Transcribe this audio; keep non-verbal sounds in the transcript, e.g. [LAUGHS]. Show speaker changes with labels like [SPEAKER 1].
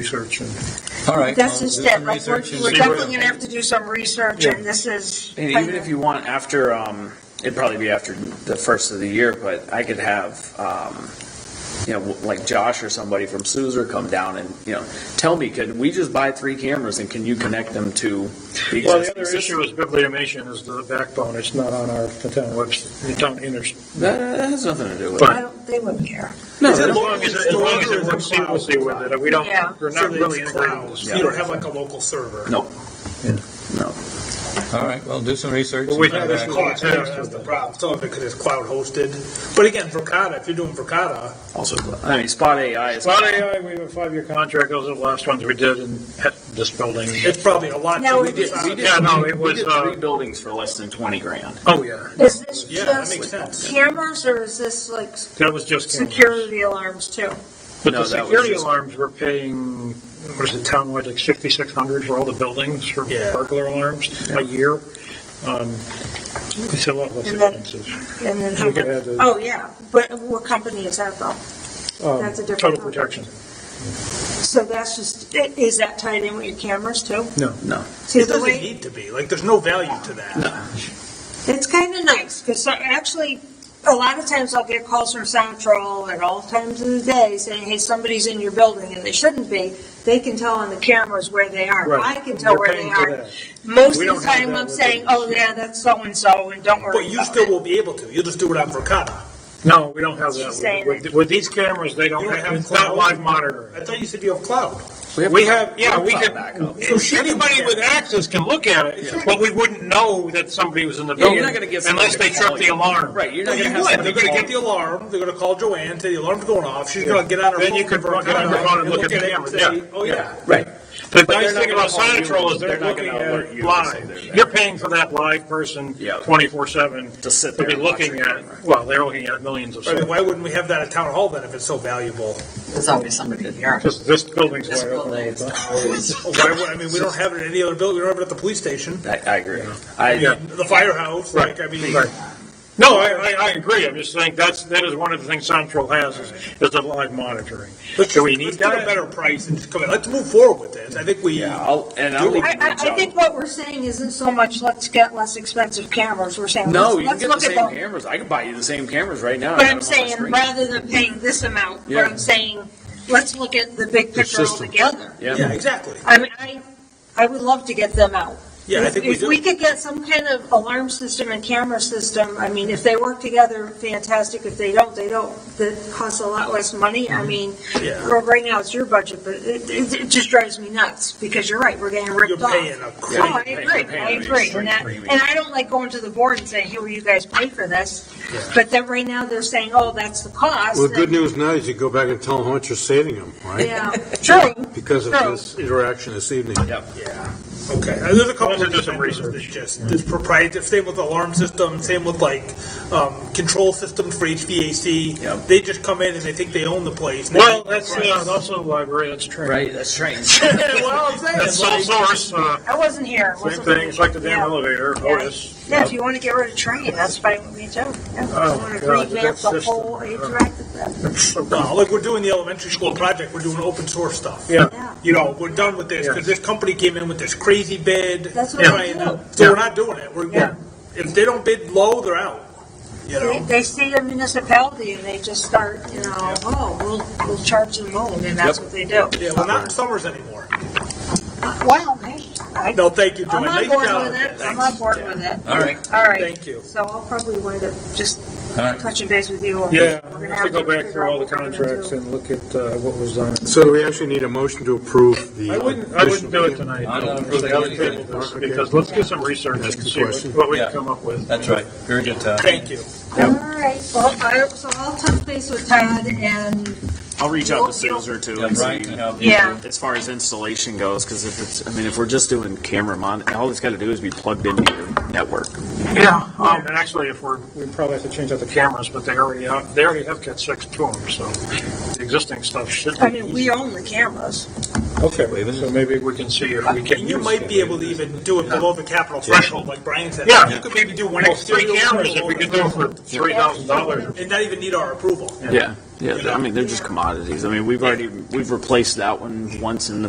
[SPEAKER 1] research and.
[SPEAKER 2] All right. well, Um,
[SPEAKER 3] That's
[SPEAKER 2] do
[SPEAKER 3] instead,
[SPEAKER 2] some
[SPEAKER 3] like, we're,
[SPEAKER 2] research and
[SPEAKER 3] we're
[SPEAKER 2] see what-
[SPEAKER 3] definitely gonna have to do some research,
[SPEAKER 1] Yeah.
[SPEAKER 3] and this is.
[SPEAKER 4] And even if you want after, um, it'd probably be after the first of the year, but I could have, um, you know, like Josh or somebody from Suzer come down and, you know, tell me, could we just buy three cameras and can you connect them to? the
[SPEAKER 1] Well, the
[SPEAKER 4] existing
[SPEAKER 1] other
[SPEAKER 4] system?
[SPEAKER 1] issue is bibliomation is the backbone. It's not on our, the town website, the town inter.
[SPEAKER 4] That that has nothing to do with
[SPEAKER 3] I
[SPEAKER 4] it.
[SPEAKER 3] don't, they wouldn't care.
[SPEAKER 4] No,
[SPEAKER 1] As
[SPEAKER 4] that-
[SPEAKER 1] long as, it- as long as it works seamlessly with it. We don't,
[SPEAKER 3] Yeah.
[SPEAKER 1] we're not really integrated. with
[SPEAKER 4] Yeah.
[SPEAKER 5] You don't have like a local server.
[SPEAKER 4] No. No.
[SPEAKER 2] All right, well, do some research.
[SPEAKER 1] Well, we
[SPEAKER 2] and come
[SPEAKER 1] have
[SPEAKER 5] That's
[SPEAKER 1] this
[SPEAKER 2] back.
[SPEAKER 1] call.
[SPEAKER 5] the problem. Some of it because it's cloud hosted. But again, Verkada, if you're doing Verkada,
[SPEAKER 4] Also, I mean, Spot AI is.
[SPEAKER 1] Cloud AI, we have a five-year contract. Those are the last ones we did in this building.
[SPEAKER 5] it's probably a lot.
[SPEAKER 3] Now,
[SPEAKER 5] to
[SPEAKER 3] we did-
[SPEAKER 5] decide.
[SPEAKER 4] We did-
[SPEAKER 1] Yeah, no, it
[SPEAKER 4] we
[SPEAKER 1] was,
[SPEAKER 4] did
[SPEAKER 1] uh,
[SPEAKER 4] three buildings for less than twenty grand.
[SPEAKER 1] Oh, yeah.
[SPEAKER 3] Is this
[SPEAKER 5] Yeah, that
[SPEAKER 3] just
[SPEAKER 5] makes sense.
[SPEAKER 3] cameras, or is this like s-
[SPEAKER 1] That was just.
[SPEAKER 3] security alarms too?
[SPEAKER 1] But
[SPEAKER 4] No,
[SPEAKER 1] the
[SPEAKER 4] that was
[SPEAKER 1] security
[SPEAKER 4] just-
[SPEAKER 1] alarms were paying, what is it, townwide, like sixty-six hundred for all the buildings for
[SPEAKER 5] Yeah.
[SPEAKER 1] burglar alarms a year. Um, It's a lot less
[SPEAKER 3] And then-
[SPEAKER 1] expensive.
[SPEAKER 3] And then,
[SPEAKER 1] We could add the-
[SPEAKER 3] oh, yeah, but what company is that though?
[SPEAKER 1] Um,
[SPEAKER 3] That's a different
[SPEAKER 1] Total
[SPEAKER 3] one.
[SPEAKER 1] protection.
[SPEAKER 3] So that's just, i- is that tied in with your cameras too?
[SPEAKER 4] No.
[SPEAKER 3] See,
[SPEAKER 5] It
[SPEAKER 3] the
[SPEAKER 5] doesn't
[SPEAKER 3] way,
[SPEAKER 5] need to be. Like, there's no value to that.
[SPEAKER 3] it's kind of nice, because actually, a lot of times I'll get calls from Soundtrol at all times of the day saying, hey, somebody's in your building, and they shouldn't be. They can tell on the cameras where they are.
[SPEAKER 1] Right.
[SPEAKER 3] I can tell
[SPEAKER 1] You're
[SPEAKER 3] where they
[SPEAKER 1] paying for
[SPEAKER 3] are.
[SPEAKER 1] that.
[SPEAKER 3] Most
[SPEAKER 1] We
[SPEAKER 3] of
[SPEAKER 1] don't
[SPEAKER 3] the
[SPEAKER 1] have
[SPEAKER 3] time,
[SPEAKER 1] that
[SPEAKER 3] I'm
[SPEAKER 1] with
[SPEAKER 3] saying,
[SPEAKER 1] us.
[SPEAKER 3] oh, yeah, that's so-and-so, and don't worry
[SPEAKER 5] But you
[SPEAKER 3] about
[SPEAKER 5] still
[SPEAKER 3] it.
[SPEAKER 5] won't be able to. You'll just do it on Verkada.
[SPEAKER 1] No, we don't have that.
[SPEAKER 3] She's saying
[SPEAKER 1] With- With these cameras, they don't,
[SPEAKER 5] You don't have
[SPEAKER 1] it's
[SPEAKER 5] cloud.
[SPEAKER 1] not live monitoring.
[SPEAKER 5] I thought you said you have cloud.
[SPEAKER 1] We have, yeah, we
[SPEAKER 4] Cloud
[SPEAKER 1] can,
[SPEAKER 4] backup.
[SPEAKER 1] anybody with access can look at it, but we wouldn't know that somebody was in the
[SPEAKER 4] Yeah,
[SPEAKER 1] building
[SPEAKER 4] you're not gonna give somebody
[SPEAKER 1] unless they
[SPEAKER 4] a call.
[SPEAKER 1] trip the alarm.
[SPEAKER 4] Right, you're
[SPEAKER 5] No,
[SPEAKER 4] not
[SPEAKER 5] you
[SPEAKER 4] gonna have
[SPEAKER 5] would.
[SPEAKER 4] somebody
[SPEAKER 5] They're going
[SPEAKER 4] call.
[SPEAKER 5] to get the alarm. They're going to call Joanne, say the alarm's going off. She's going to get on her
[SPEAKER 1] Then
[SPEAKER 5] phone
[SPEAKER 1] you can
[SPEAKER 5] from
[SPEAKER 1] look at
[SPEAKER 5] Verkada
[SPEAKER 1] her phone and look at the
[SPEAKER 5] it
[SPEAKER 1] camera,
[SPEAKER 5] and say,
[SPEAKER 1] yeah.
[SPEAKER 5] Oh, yeah.
[SPEAKER 4] Right.
[SPEAKER 1] The
[SPEAKER 4] But they're
[SPEAKER 1] nice
[SPEAKER 4] not
[SPEAKER 1] thing
[SPEAKER 4] gonna
[SPEAKER 1] about
[SPEAKER 4] call you.
[SPEAKER 1] Sonatrol is
[SPEAKER 4] They're
[SPEAKER 1] they're
[SPEAKER 4] not
[SPEAKER 1] looking
[SPEAKER 4] gonna
[SPEAKER 1] at
[SPEAKER 4] alert you
[SPEAKER 1] it
[SPEAKER 4] to say they're
[SPEAKER 1] live.
[SPEAKER 4] there.
[SPEAKER 1] You're paying for that live person
[SPEAKER 4] Yeah.
[SPEAKER 1] twenty-four seven.
[SPEAKER 4] To sit there
[SPEAKER 1] be
[SPEAKER 4] and watch
[SPEAKER 1] looking
[SPEAKER 4] your camera.
[SPEAKER 1] at, well, they're looking at millions of
[SPEAKER 5] I mean,
[SPEAKER 1] seconds.
[SPEAKER 5] why wouldn't we have that at town hall then if it's so valuable?
[SPEAKER 6] There's always somebody here.
[SPEAKER 1] Because this building's
[SPEAKER 6] This
[SPEAKER 1] wide open.
[SPEAKER 6] building is always.
[SPEAKER 5] Why would, I mean, we don't have it in any other building. We don't have it at the police station.
[SPEAKER 4] I, I agree. I,
[SPEAKER 5] The firehouse, like, I mean,
[SPEAKER 1] Right. No, I, I, I agree. I'm just saying that's, that is one of the things Sonatrol has is, is the live monitoring.
[SPEAKER 5] let's,
[SPEAKER 1] Do we need
[SPEAKER 5] let's get
[SPEAKER 1] that?
[SPEAKER 5] a better price and just come in. Let's move forward with this. I think we,
[SPEAKER 4] yeah, I'll, and I'll. leave
[SPEAKER 3] I,
[SPEAKER 4] you
[SPEAKER 3] I,
[SPEAKER 4] with
[SPEAKER 3] I
[SPEAKER 4] John.
[SPEAKER 3] think what we're saying isn't so much, let's get less expensive cameras, we're saying,
[SPEAKER 4] No,
[SPEAKER 3] let's,
[SPEAKER 4] you can
[SPEAKER 3] let's
[SPEAKER 4] get
[SPEAKER 3] look at
[SPEAKER 4] the same
[SPEAKER 3] the.
[SPEAKER 4] cameras. I could buy you the same cameras right now. I
[SPEAKER 3] But
[SPEAKER 4] got
[SPEAKER 3] I'm
[SPEAKER 4] them on my
[SPEAKER 3] saying,
[SPEAKER 4] screen.
[SPEAKER 3] rather than paying this amount,
[SPEAKER 4] Yeah.
[SPEAKER 3] what I'm saying, let's look at the big picture
[SPEAKER 2] system.
[SPEAKER 3] altogether.
[SPEAKER 5] yeah,
[SPEAKER 4] Yeah,
[SPEAKER 5] exactly.
[SPEAKER 3] I mean, I, I would love to get them out.
[SPEAKER 5] Yeah, I
[SPEAKER 3] If-
[SPEAKER 5] think we
[SPEAKER 3] If
[SPEAKER 5] do.
[SPEAKER 3] we could get some kind of alarm system and camera system, I mean, if they work together, fantastic, if they don't, they don't, that costs a lot less money, I mean,
[SPEAKER 5] Mm-hmm. Yeah.
[SPEAKER 3] right now it's your budget, but it, it, it just drives me nuts, because you're right, we're getting ripped
[SPEAKER 5] You're
[SPEAKER 3] off.
[SPEAKER 5] paying a
[SPEAKER 3] Oh, I
[SPEAKER 5] crazy.
[SPEAKER 3] agree, I agree, and that, and I don't like going to the board and saying, hey, will you guys pay for this? But then right now, they're saying, oh, that's the cost.
[SPEAKER 7] Well, the good news now is you go back and tell them how much you're saving them, right?
[SPEAKER 3] Yeah,
[SPEAKER 5] [LAUGHS]
[SPEAKER 3] true,
[SPEAKER 7] Because of
[SPEAKER 3] True.
[SPEAKER 7] this interaction this evening.
[SPEAKER 5] Yeah, okay. Uh, There's a couple
[SPEAKER 1] Those are
[SPEAKER 5] of
[SPEAKER 1] just some
[SPEAKER 5] examples that
[SPEAKER 1] research.
[SPEAKER 5] just, this proprietary, same with alarm system, same with like, um, control systems for
[SPEAKER 4] Yep.
[SPEAKER 5] HVAC. They just come in and they think they own the place. They
[SPEAKER 1] Well,
[SPEAKER 5] think-
[SPEAKER 1] that's, uh, also library, that's true.
[SPEAKER 4] right, that's strange.
[SPEAKER 5] Well, I'm saying,
[SPEAKER 1] That's sole
[SPEAKER 5] like,
[SPEAKER 1] source, uh,
[SPEAKER 3] I wasn't here. I
[SPEAKER 1] same
[SPEAKER 3] wasn't-
[SPEAKER 1] thing, it's like the damn
[SPEAKER 3] Yeah.
[SPEAKER 1] elevator,
[SPEAKER 3] Yeah.
[SPEAKER 1] Otis.
[SPEAKER 3] Yeah, if you want to get rid of train, that's fine with me too. Yeah, I
[SPEAKER 1] Oh,
[SPEAKER 3] want
[SPEAKER 1] God,
[SPEAKER 3] to revamp
[SPEAKER 1] that's
[SPEAKER 3] the
[SPEAKER 1] just- uh,
[SPEAKER 3] whole interactive, thing.
[SPEAKER 5] no, Uh, like we're doing the elementary school project, we're doing open source stuff.
[SPEAKER 1] Yeah.
[SPEAKER 3] yeah.
[SPEAKER 5] You know, we're done with this,
[SPEAKER 1] Yeah.
[SPEAKER 5] because this company came in with this crazy bid.
[SPEAKER 3] That's what
[SPEAKER 5] they're
[SPEAKER 3] we
[SPEAKER 5] trying
[SPEAKER 3] do.
[SPEAKER 5] to- So we're not doing it. We're,
[SPEAKER 1] Yeah.
[SPEAKER 5] if they don't bid low, they're out, you
[SPEAKER 3] They,
[SPEAKER 5] know?
[SPEAKER 3] they see a municipality and they just start, you know, oh, we'll, we'll charge them more, and that's what they do.
[SPEAKER 5] Yeah, well, not in Summers anymore.
[SPEAKER 3] Wow, hey, I,
[SPEAKER 5] No, thank you, Joy.
[SPEAKER 3] I'm on
[SPEAKER 5] Nice
[SPEAKER 3] board
[SPEAKER 5] job.
[SPEAKER 3] with it, I'm
[SPEAKER 5] Thanks.
[SPEAKER 3] on board with it.
[SPEAKER 2] All right,
[SPEAKER 3] All right.
[SPEAKER 5] Thank you.
[SPEAKER 3] So I'll probably wind up just
[SPEAKER 2] all right.
[SPEAKER 3] touching base with you.
[SPEAKER 1] Yeah,
[SPEAKER 3] We're
[SPEAKER 1] we
[SPEAKER 3] gonna
[SPEAKER 1] have to go
[SPEAKER 3] figure
[SPEAKER 1] back through
[SPEAKER 3] out
[SPEAKER 1] all the
[SPEAKER 3] what we're gonna do.
[SPEAKER 1] contracts and look at uh, what was done.
[SPEAKER 7] So we actually need a motion to approve the.
[SPEAKER 1] I wouldn't, I wouldn't do it
[SPEAKER 7] additional-
[SPEAKER 1] tonight.
[SPEAKER 2] I'm not
[SPEAKER 1] Because
[SPEAKER 2] approving
[SPEAKER 1] I'll table
[SPEAKER 2] anything.
[SPEAKER 1] this, Because let's do some research and
[SPEAKER 7] Ask a
[SPEAKER 1] see what-
[SPEAKER 7] question.
[SPEAKER 1] what we
[SPEAKER 2] Yeah.
[SPEAKER 1] can come up with.
[SPEAKER 2] That's right. Very good, uh, Todd.
[SPEAKER 5] Thank you.
[SPEAKER 3] All right, well, I, so I'll touch base with Todd and
[SPEAKER 4] I'll reach out to Suzer too.
[SPEAKER 2] Yeah,
[SPEAKER 4] and see
[SPEAKER 2] Brian can help you.
[SPEAKER 3] Yeah.
[SPEAKER 4] As far as installation goes, because if it's, I mean, if we're just doing camera mon, all it's got to do is be plugged into your network.
[SPEAKER 1] Yeah. Um, and actually, if we're, we probably have to change out the cameras, but they already have, they already have cat six to them, so the existing stuff should
[SPEAKER 3] I
[SPEAKER 1] be.
[SPEAKER 3] mean, we own the cameras.
[SPEAKER 1] Okay, so maybe we can see if we can.
[SPEAKER 5] And you
[SPEAKER 1] use
[SPEAKER 5] might be
[SPEAKER 1] it.
[SPEAKER 5] able to even do it below the capital threshold, like Brian said.
[SPEAKER 1] Yeah.
[SPEAKER 5] You could maybe do one
[SPEAKER 1] Well, three
[SPEAKER 5] exterior
[SPEAKER 1] cameras, if
[SPEAKER 5] wall
[SPEAKER 1] we could do it for three thousand dollars.
[SPEAKER 5] And not even need our approval.
[SPEAKER 4] Yeah. Yeah, I mean, they're just commodities. I mean, we've already, we've replaced that one once in the